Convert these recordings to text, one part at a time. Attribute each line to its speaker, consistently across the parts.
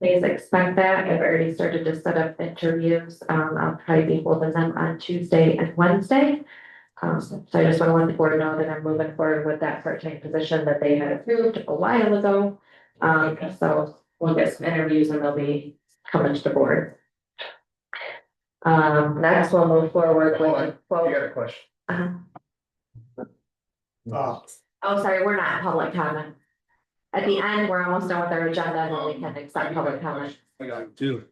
Speaker 1: Please expect that. I've already started to set up interviews. Um, I'll probably be holding them on Tuesday and Wednesday. Um, so I just want to let the board know that I'm moving forward with that part-time position that they had approved a while ago. Um, so we'll get some interviews and they'll be coming to the board. Um, next we'll move forward
Speaker 2: Hold on.
Speaker 1: with.
Speaker 2: I got a question.
Speaker 1: Uh-huh.
Speaker 2: Uh,
Speaker 1: Oh, sorry, we're not in public comment. At the end, we're almost done with our agenda and then we can accept public comment.
Speaker 2: I got-
Speaker 3: Two.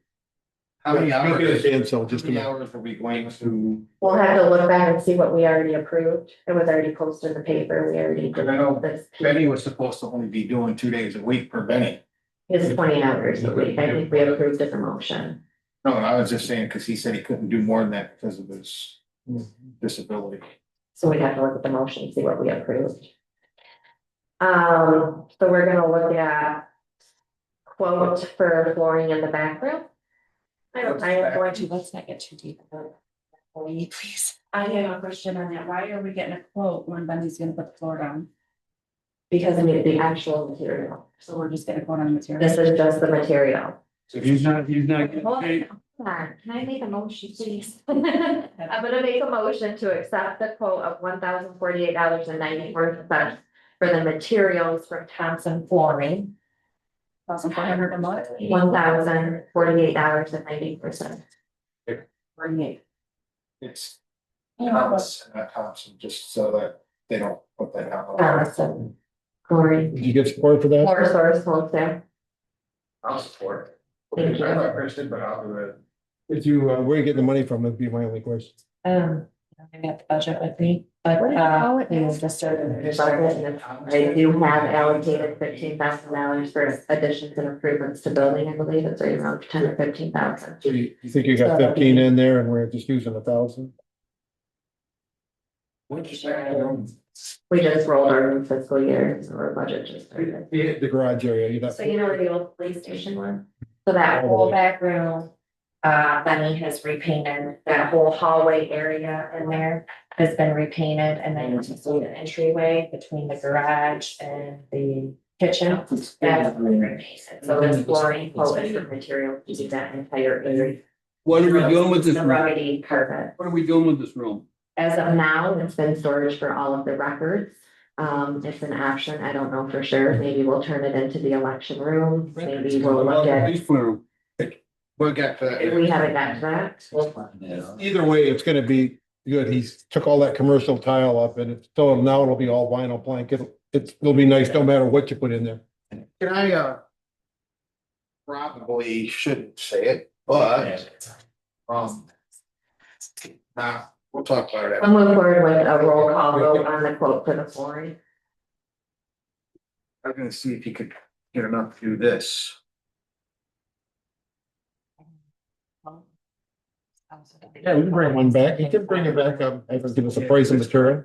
Speaker 2: How many
Speaker 3: Yeah,
Speaker 2: hours,
Speaker 3: I'm gonna
Speaker 2: how
Speaker 3: stand, so just a
Speaker 2: many
Speaker 3: minute.
Speaker 2: hours are we going to?
Speaker 1: We'll have to look back and see what we already approved. It was already posted in the paper. We already
Speaker 2: Cause
Speaker 1: did
Speaker 2: I know
Speaker 1: this.
Speaker 2: Benny was supposed to only be doing two days a week per Benny.
Speaker 1: It's twenty hours a week. I think we approved it the motion.
Speaker 2: No, I was just saying, cause he said he couldn't do more than that because of his disability.
Speaker 1: So we'd have to look at the motion, and see what we approved. Um, so we're gonna look at quote for flooring in the back room. I don't, I am going to
Speaker 4: Actually, let's not get too deep. about that, will you Please. I have a question on that. Why are we getting a quote when Benny's gonna put the floor down?
Speaker 1: because I need the actual material.
Speaker 4: So we're just getting a quote on the material.
Speaker 1: This is just the material.
Speaker 2: So
Speaker 3: He's not, he's not.
Speaker 4: Okay, hold
Speaker 3: paid.
Speaker 4: on.
Speaker 1: Hold on, can I make a motion, please? I'm gonna make a motion to accept the quote of one thousand forty-eight dollars and ninety-four cents for the materials from Thompson Flooring,
Speaker 4: Thousand four hundred a month.
Speaker 1: one thousand forty-eight dollars and ninety-four cents.
Speaker 4: Forty-eight.
Speaker 2: It's
Speaker 4: You know, but-
Speaker 2: Thomas, not Thompson, just so that they don't put that out.
Speaker 1: Thompson Flooring,
Speaker 3: Did you get support for that?
Speaker 1: Floor Source Wholesale,
Speaker 2: I'll support.
Speaker 1: Thank you.
Speaker 2: I'm not interested, but I'll do it.
Speaker 3: If you, uh, where you get the money from, that'd be my only question.
Speaker 1: um,
Speaker 4: I got the budget with me, but
Speaker 1: What
Speaker 4: uh,
Speaker 1: about-
Speaker 4: we will just start.
Speaker 1: there's all that, and I do have allocated fifteen thousand dollars for additions and improvements to building, I believe, it's right around ten or fifteen thousand.
Speaker 3: So you, you think you got fifteen in there and we're just using a thousand?
Speaker 2: What'd you say?
Speaker 1: We just rolled our new fiscal year, so our budget just started.
Speaker 3: The garage area, you got.
Speaker 1: So you know where the old police station was? So that whole back room, uh, Benny has repainted, that whole hallway area in there has been repainted and then it's just the entryway between the garage and the kitchen. That's been repainted, so this flooring, whole different material, you do that entire area.
Speaker 5: What are we doing with this
Speaker 1: The
Speaker 5: room?
Speaker 1: ruggedy carpet.
Speaker 5: What are we doing with this room?
Speaker 1: As of now, it's been storage for all of the records. Um, it's an option. I don't know for sure. Maybe we'll turn it into the election room. Maybe we'll
Speaker 5: What about
Speaker 1: look
Speaker 5: the
Speaker 1: at,
Speaker 5: police room?
Speaker 2: We'll get to that.
Speaker 1: we haven't got to that. We'll-
Speaker 3: Either way, it's gonna be good. He's took all that commercial tile up and it's, so now it'll be all vinyl plank. It'll, it's, it'll be nice no matter what you put in there.
Speaker 2: Can I, uh? Probably shouldn't say it, but, um. Nah, we'll talk about it.
Speaker 1: We'll move forward with a roll call vote on the quote for the flooring.
Speaker 2: I'm gonna see if you could get enough to do this.
Speaker 3: Yeah, we can bring one back. You can bring it back up. and Give us a price and material.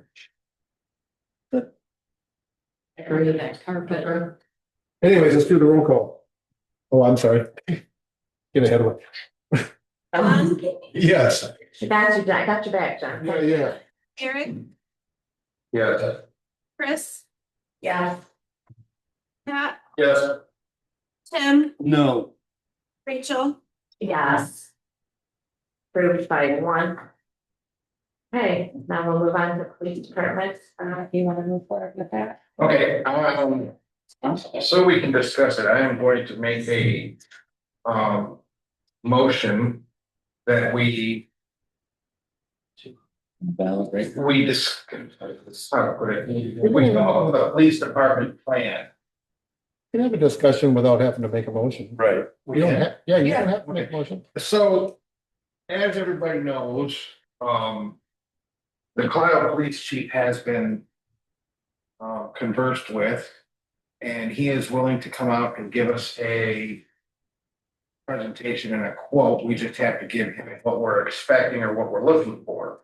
Speaker 1: Agree that carpet room.
Speaker 3: Anyways, let's do the roll call. Oh, I'm sorry. Get ahead of it. Yes.
Speaker 1: She got you, I got your back, John.
Speaker 3: Yeah, yeah.
Speaker 6: Eric,
Speaker 2: Yeah.
Speaker 6: Chris,
Speaker 1: Yeah.
Speaker 6: Pat,
Speaker 2: Yes.
Speaker 6: Tim,
Speaker 5: No.
Speaker 6: Rachel,
Speaker 1: Yes. Approved by one. Okay, now we'll move on to police department. Uh,
Speaker 4: You wanna move forward with that?
Speaker 2: Okay, um, so we can discuss it, I am going to make a, um, motion that we,
Speaker 4: Well,
Speaker 2: we dis, how to put it, we come up with a police department plan.
Speaker 3: You can have a discussion without having to make a motion.
Speaker 2: Right.
Speaker 3: You don't have, yeah, you don't have to make a motion.
Speaker 2: So, as everybody knows, um. The Cloud Police Chief has been. Uh, conversed with. And he is willing to come out and give us a. Presentation and a quote, we just have to give him what we're expecting or what we're looking for.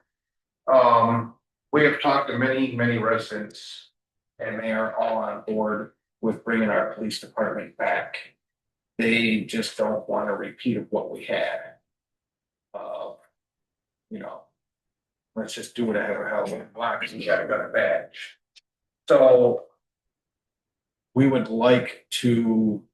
Speaker 2: Um, we have talked to many, many residents. And they are all on board with bringing our police department back they just don't want a repeat of what we had. Uh, you know, let's just do it ahead of Halloween block, because we gotta got a badge. So we would like to